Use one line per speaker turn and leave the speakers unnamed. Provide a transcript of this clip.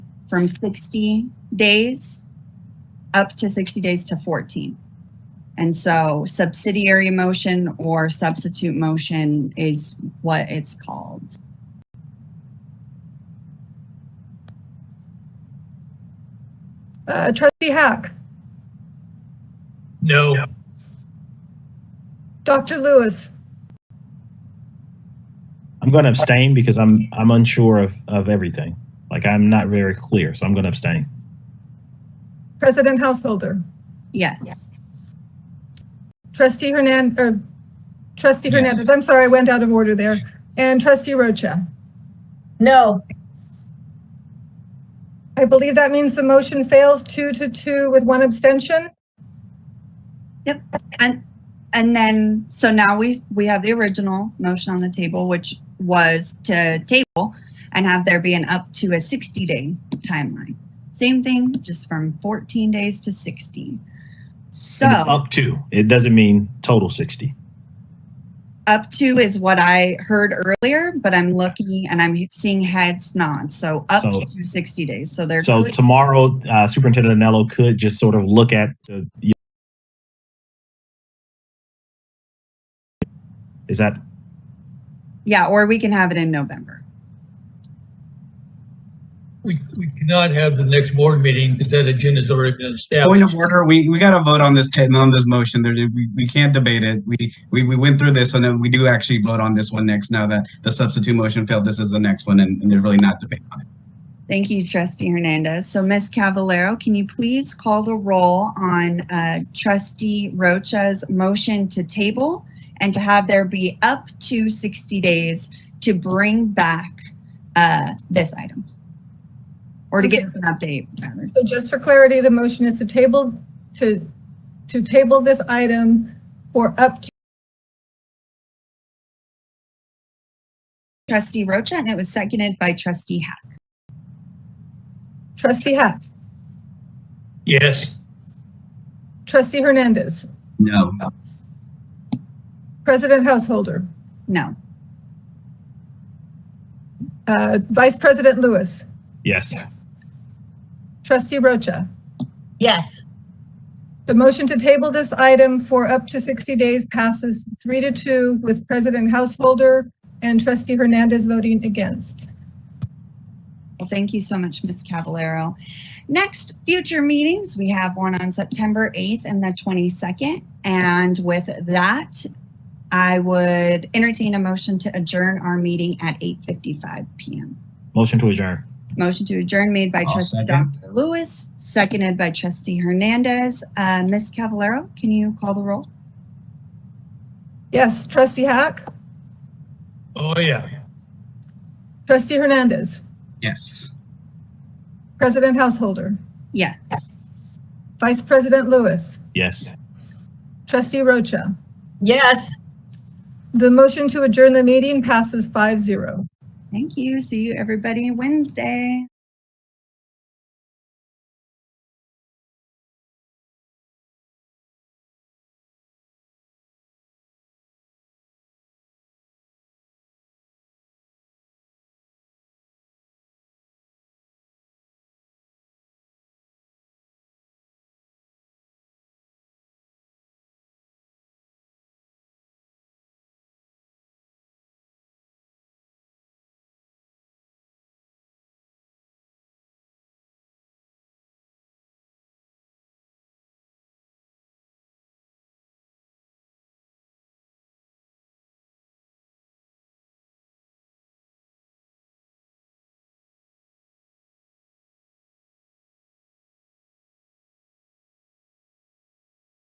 from 60 days up to 60 days to 14. And so subsidiary motion or substitute motion is what it's called.
Uh, Trustee Hack,
No.
Dr. Lewis,
I'm going to abstain because I'm I'm unsure of of everything. Like I'm not very clear, so I'm going to abstain.
President Householder,
Yes.
Trustee Hernan, or Trustee
Yes.
Hernandez, I'm sorry, I went out of order there, and Trustee Rocha.
No,
I believe that means the motion fails two to two with one abstention.
And and then so now we we have the original motion on the table which was to table and have there be an up to a 60 day timeline. Same thing just from 14 days to 60. So
And it's up to. It doesn't mean total 60.
up to is what I heard earlier, but I'm looking and I'm seeing heads nod. So up
So-
to 60 days. So they're
So tomorrow, uh, Superintendent Anello could just sort of look at the. Is that
yeah, or we can have it in November.
We, we cannot have the next board meeting because that agenda's already been
Point
established.
of order, we, we gotta vote on this, ta- on this motion, there, we, we can't debate it, we, we, we went through this, and then we do actually vote on this one next, now that the substitute motion failed, this is the next one, and, and there's really not debate on it.
Thank you, Trustee Hernandez. So Ms. Cavallero, can you please call the roll on uh, Trustee Rocha's motion to table and to have there be up to 60 days to bring back uh, this item? Or to give us an update, rather.
So just for clarity, the motion is to table, to, to table this item for up to,
Trustee Rocha, and it was seconded by Trustee Hack.
Trustee Hack,
Yes,
Trustee Hernandez,
No,
President Householder,
No.
uh, Vice President Lewis,
yes?
Trustee Rocha.
yes,
The motion to table this item for up to 60 days passes three to two with President Householder and Trustee Hernandez voting against.
Well, thank you so much, Ms. Cavallero. Next, future meetings, we have one on September 8th and the 22nd. And with that, I would entertain a motion to adjourn our meeting at 8:55 PM.
Motion to adjourn.
Motion to adjourn made by
I'll
trustee
second.
Dr. Lewis, seconded by trustee Hernandez. Uh, Ms. Cavallero, can you call the roll?
Yes, Trustee Hack,
oh yeah.
Trustee Hernandez,
yes.
President Householder,
Yes.
Vice President Lewis,
Yes.
Trustee Rocha.
yes.
The motion to adjourn the meeting passes 5-0.
Thank you. See you everybody Wednesday.